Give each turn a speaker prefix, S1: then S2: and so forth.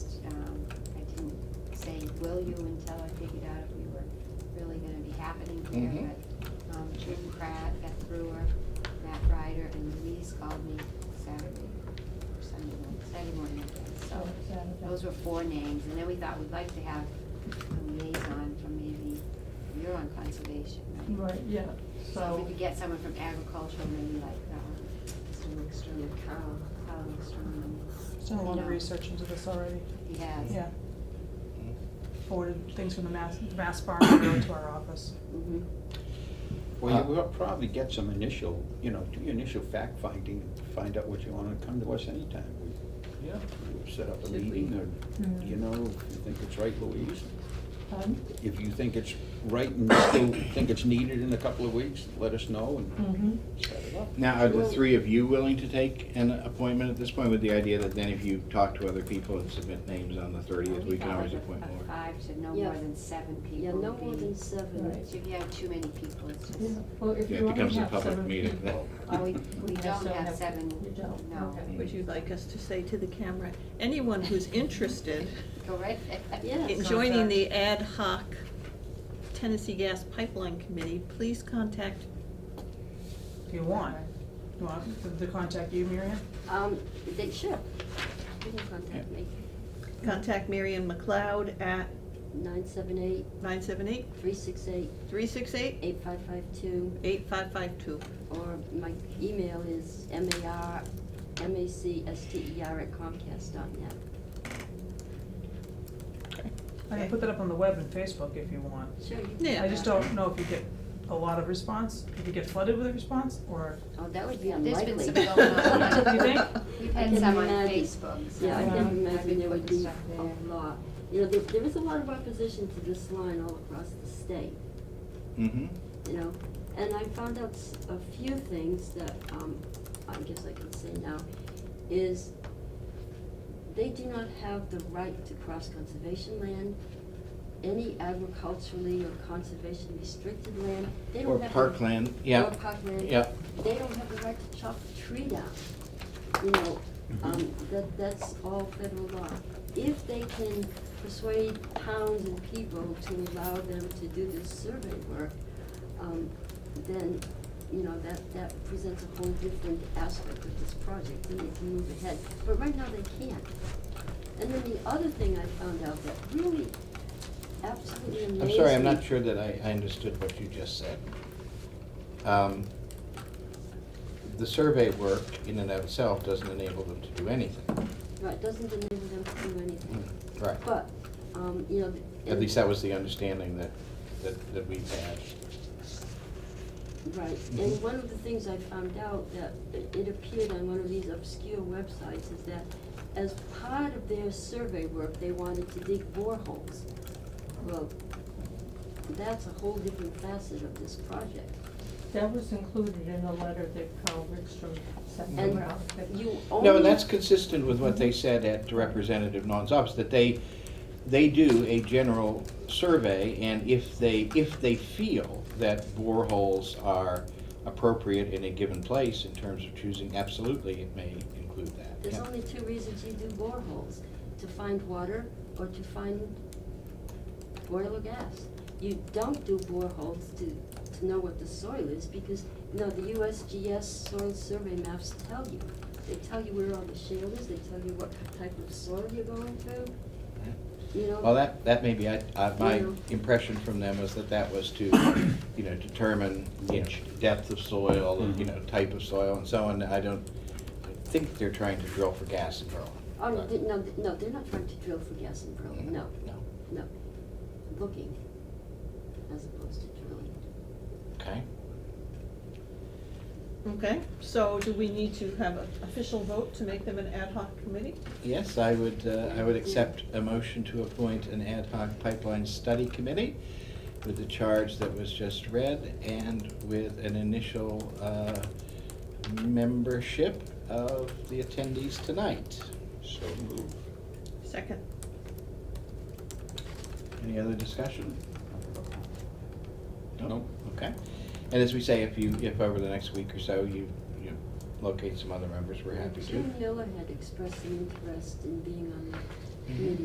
S1: Um, will you until I figured out if we were really gonna be happening here.
S2: Mhm.
S1: But um, Jim Pratt, Beth Brewer, Matt Ryder, and Louise called me Saturday, or Sunday morning, Saturday morning, I guess. So those were four names, and then we thought we'd like to have a liaison from maybe, you're on conservation, right?
S3: Right, yeah,
S1: So if
S3: so,
S1: we could get someone from agriculture, maybe like, um, Mr. Wickstrom, or Carl, Carl Wickstrom.
S3: he's done a lot of
S1: No.
S3: research into this already,
S1: He has.
S3: yeah. Forwarded things from the Mass, Mass Farm Bureau to our office.
S1: Mhm.
S2: Well,
S4: Uh,
S2: you will probably get some initial, you know, do your initial fact finding, find out what you want, and come to us anytime. We-
S4: Yeah.
S2: We'll set up a
S1: Should we- Mm-hmm.
S2: meeting, or, you know, if you think it's right, Louise, if you think it's right and still think it's needed in a couple of weeks, let us know
S1: Mm.
S2: and
S3: Mm-hmm.
S2: set it up.
S4: Now, are the three of you willing to take an appointment at this point with the idea that then if you talk to other people and submit names on the thirtieth, we can always
S1: Five,
S4: appoint
S1: a
S4: more?
S1: Five to no
S5: Yeah.
S1: more than seven people.
S5: Yeah, no
S1: would
S5: more
S1: be-
S5: than seven.
S6: Right.
S1: If you have too many people, it's just,
S6: Yeah, Well, if
S4: Yeah, It
S6: you only
S4: becomes a
S6: have
S4: public
S6: seven
S4: meeting.
S6: people,
S1: oh,
S6: I-
S1: we, we
S6: we have
S1: don't have seven,
S6: You don't?
S1: no.
S6: Okay.
S7: Would you like us to say to the camera, anyone who's interested
S1: Go right,
S5: Yeah.
S7: in joining the ad hoc Tennessee Gas Pipeline Committee, please contact,
S3: If you want, you want them to contact you, Miriam?
S5: Um, they should. You can contact me,
S7: contact Marion McLeod at
S5: nine seven eight,
S7: 978-368-8552
S5: three six eight, eight five five two, or my email is M A R, M A C S T E R at Comcast dot net.
S3: I can put that up on the web and Facebook if you want.
S5: Sure, you can.
S7: Yeah.
S3: I just don't know if you get a lot of response, if you get flooded with a response, or,
S5: Oh, that would be
S1: There's
S5: unlikely.
S1: been some going on.
S3: you think?
S1: We've
S5: I
S1: had
S5: can
S1: some on
S5: imagine.
S1: Facebook. so
S5: Yeah, I
S3: Yeah.
S5: can
S1: I've been
S5: imagine there would
S1: putting
S5: be
S1: stuff there.
S5: a lot. You know, there, there is a lot of opposition to this line all across the state.
S4: Mm-hmm.
S5: you know. And I found out s- a few things that, um, I guess I can say now, is they do not have the right to cross conservation land, any agriculturally or conservation restricted land, they
S4: Or
S5: don't have. the-
S4: parkland, yeah.
S5: Or parkland.
S4: Yeah.
S5: They don't have the right to chop a tree down, you know, um, that, that's all federal law. If they can persuade towns and people to allow them to do this survey work, um, then, you know, that, that presents a whole different aspect of this project, and they can move ahead. But right now, they can't. And then the other thing I found out that really absolutely amazed
S4: I'm
S5: me.
S4: sorry, I'm not sure that I, I understood what you just said. Um, The survey work in and of itself doesn't enable them to do anything.
S5: Right, doesn't enable them to do anything.
S4: Mm, Right.
S5: But, um, you know.
S4: At
S5: and-
S4: least that was the understanding that, that, that we've had.
S5: Right, and one of the things I found out that it it appeared on one of these obscure websites is that as part of their survey work, they wanted to dig boreholes. Well, that's a whole different facet of this project.
S6: That was included in the letter that Carl Rickstrom sent
S5: And
S6: around. that-
S5: you only.
S4: No, and that's consistent with what they said at Representative Non's office, that they, they do a general survey, and if they, if they feel that boreholes are appropriate in a given place in terms of choosing, absolutely, it may include that.
S5: There's
S4: Yeah.
S5: only two reasons you do boreholes, to find water or to find oil or gas. You don't do boreholes to, to know what the soil is, because, no, the USGS soil survey maps tell you. They tell you where all the shale is, they tell you what type of soil you're going through, you know?
S4: Well, that, that may be, I, I, my
S5: Yeah.
S4: impression from them was that that was to, you know, determine, you know, depth of soil, and, you know, type of soil and so on. I don't, I think they're trying to drill for gas and oil.
S5: Oh, no, they- no, they- no, they're not trying to drill for gas and pearl, no,
S4: No,
S5: no. Looking, as opposed to drilling.
S4: okay.
S7: okay? So do we need to have an official vote to make them an ad hoc committee?
S4: Yes, I would, uh, I would accept a motion to appoint an ad hoc pipeline study committee with the charge that was just read and with an initial uh, membership of the attendees tonight.
S2: So move.
S7: Second,
S4: Any other discussion?
S2: Nope.
S4: Okay. And as we say, if you, if over the next week or so you, you locate some other members, we're happy to. Mm-hmm.
S5: Jim Miller had expressed an interest in being on the committee